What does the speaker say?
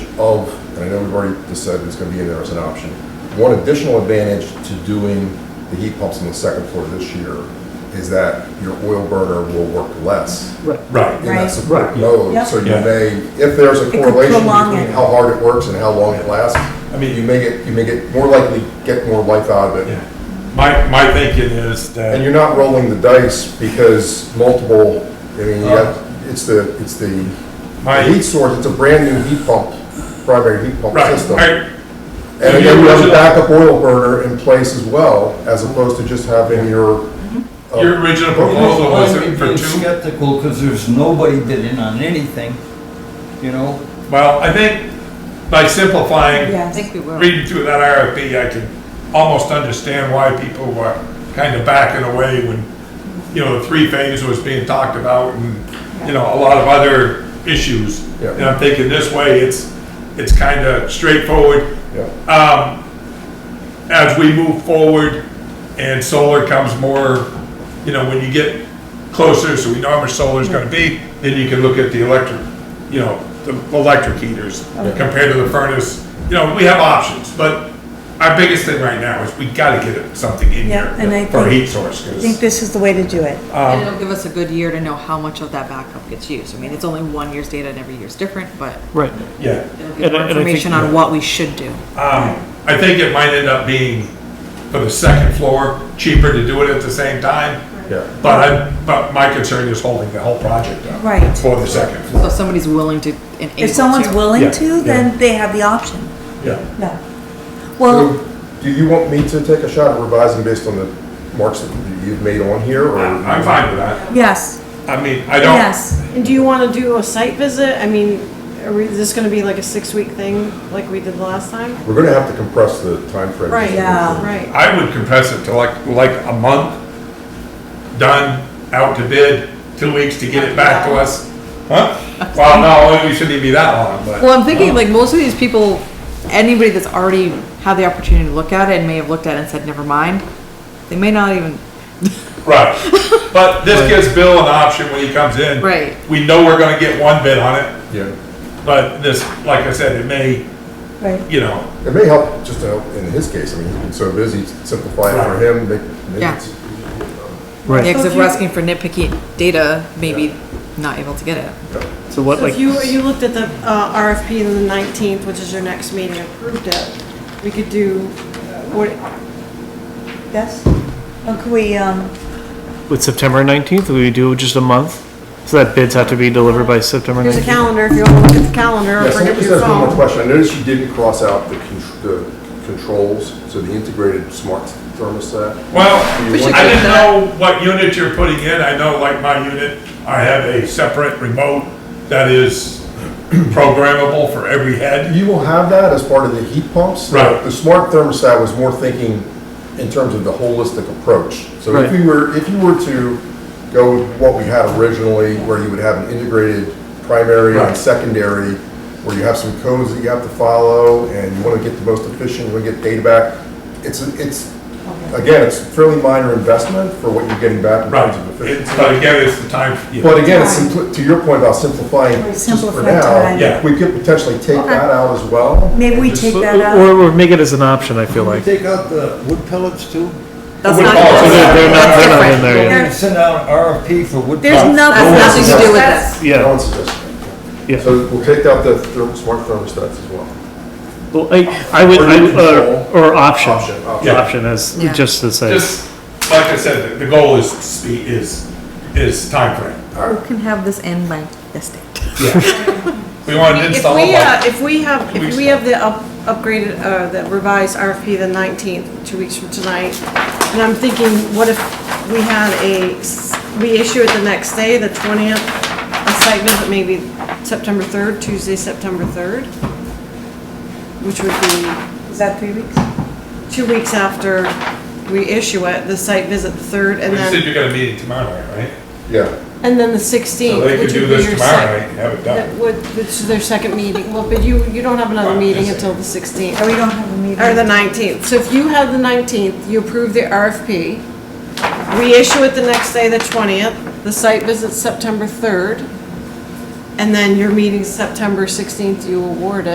of, and I know we've already decided it's gonna be in there as an option, one additional advantage to doing the heat pumps on the second floor this year is that your oil burner will work less Right. in Right, that Right. support Right. mode. Yep. So you Yeah. may, if there's a It could correlation prolong between it. how hard it works and how long it lasts, I mean- you may get, you may get more likely get more life out of it. yeah. My, my thinking is And that, you're not rolling the dice because multiple, I mean, you got, it's the, it's the Uh, my, heat source, it's a brand-new heat pump, primary heat pump right, system. right, And then you have a backup oil burner in place as well, as opposed to just having your. uh, your original proposal was I'm for being two? Skeptical, because there's nobody bidding on anything, you know? Well, I think by simplifying Yes. I think we will. reading through that RFP, I can almost understand why people were kind of backing away when, you know, the three-phase was being talked about and, you know, a lot of other issues. Yeah. And I'm thinking this way, it's, it's kind of straightforward. yeah. Um, as we move forward and solar comes more, you know, when you get closer, so we know how much solar's gonna be, then you can look at the electric, you know, the electric heaters compared to the furnace. You know, we have options, but our biggest thing right now is we gotta get something in Yeah, and I here for a think- heat source, I think 'cause, this is the way to do it. Um, And it'll give us a good year to know how much of that backup gets used. I mean, it's only one year's data and every year's different, but Right. yeah. it'll And give I- more and I think- information on what we should do. Um, I think it might end up being for the second floor, cheaper to do it at the same time. Yeah. But I, but my concern is holding the whole project up. Right. For the second So floor, if somebody's willing to and able If someone's to- Yeah, willing to, then they have the option. yeah. No. So, Well, do you want me to take a shot at revising based on the marks that you've made on here, or? I- I'm fine with that. yes, I mean, I don't, yes. And do you want to do a site visit? I mean, are we, is this going to be like a six-week thing like we did last time? We're gonna have to compress the timeframe. Right, Yeah. right. I would compress it to like, like a month, done, out to bid, two weeks to get it back to us. Huh? Well, no, it shouldn't even be that long, but. Well, I'm thinking like most of these people, anybody that's already had the opportunity to look at it and may have looked at it and said, never mind, they may not even, Right, but this gives Bill an option when he comes in. Right. We know we're gonna get one bid on it, Yeah. but this, like I said, it may, Right. you know, It may help, just to help in his case, I mean, he's been so busy, simplify it for him, make, make Yeah. it Right. because if if we're you- asking for nitpicky data, maybe not able to get it. So what, So like, if you, you looked at the uh, RFP on the 19th, which is your next meeting, approved it, we could do, what, Yes. Or could we, um, with September 19th, we do just a month? So that bids have to be delivered by September here's a 19th? calendar if you want to look at the calendar Yeah, or bring someone up just your has one more phone. question. I noticed you didn't cross out the con- the controls, so the integrated smart thermostat. well, We should I get didn't that. know what unit you're putting in. I know like my unit, I have a separate remote that is programmable for every head. You will have that as part of the heat pumps. Right. The smart thermostat was more thinking in terms of the holistic approach. So if Right. you were, if you were to go with what we had originally, where you would have an integrated primary and Right. secondary, where you have some codes that you have to follow, and you want to get the most efficient, you want to get data back, it's, it's, again, it's fairly minor investment for what you're getting back in Right, terms of efficiency. It's- but again, it's the time, yeah, But again, it's simpli- to your point about simplifying, just for Simplify now, time. Yeah. we could potentially take Okay. that out as well. maybe we Just take So- that out? Or, or make it as an option, I feel like. Take out the wood pellets too? That's Well, not, we're all- Oh, So they're- they're not- that's they're not in different. there yet. We're gonna Send out an RFP for wood There's pellets. nothing. That's Nothing to do with That's- this. No Yeah, one's suggesting. yeah. So we'll take out the therm- smart thermostats as well. Well, I, I would, Or I would- control. or, or option. Option, option. Yeah. Option as, Yeah. just to say. just, like I said, the goal is speed, is, is timeframe. We can have this end by this date. We want to If install we, uh, like if we have, Two weeks if we have the up- upgraded, uh, the revised RFP the 19th, two weeks from tonight, and I'm thinking, what if we had a, s- we issue it the next day, the 20th, a site visit maybe September 3rd, Tuesday, September 3rd? Which would be Is that three weeks? two weeks after we issue it, the site visit the 3rd, and You said then, you got a meeting tomorrow night, right? Yeah. and then the So they 16th, could which do would be this your tomorrow sec- night and have it that done. would, which is their second meeting, well, but you, you don't have another Well, meeting yes. until the 16th. Or we don't have a meeting? Or the 19th. So if you have the 19th, you approve the RFP, we issue it the next day, the 20th, the site visit's September 3rd, and then your meeting's September 16th, you award it.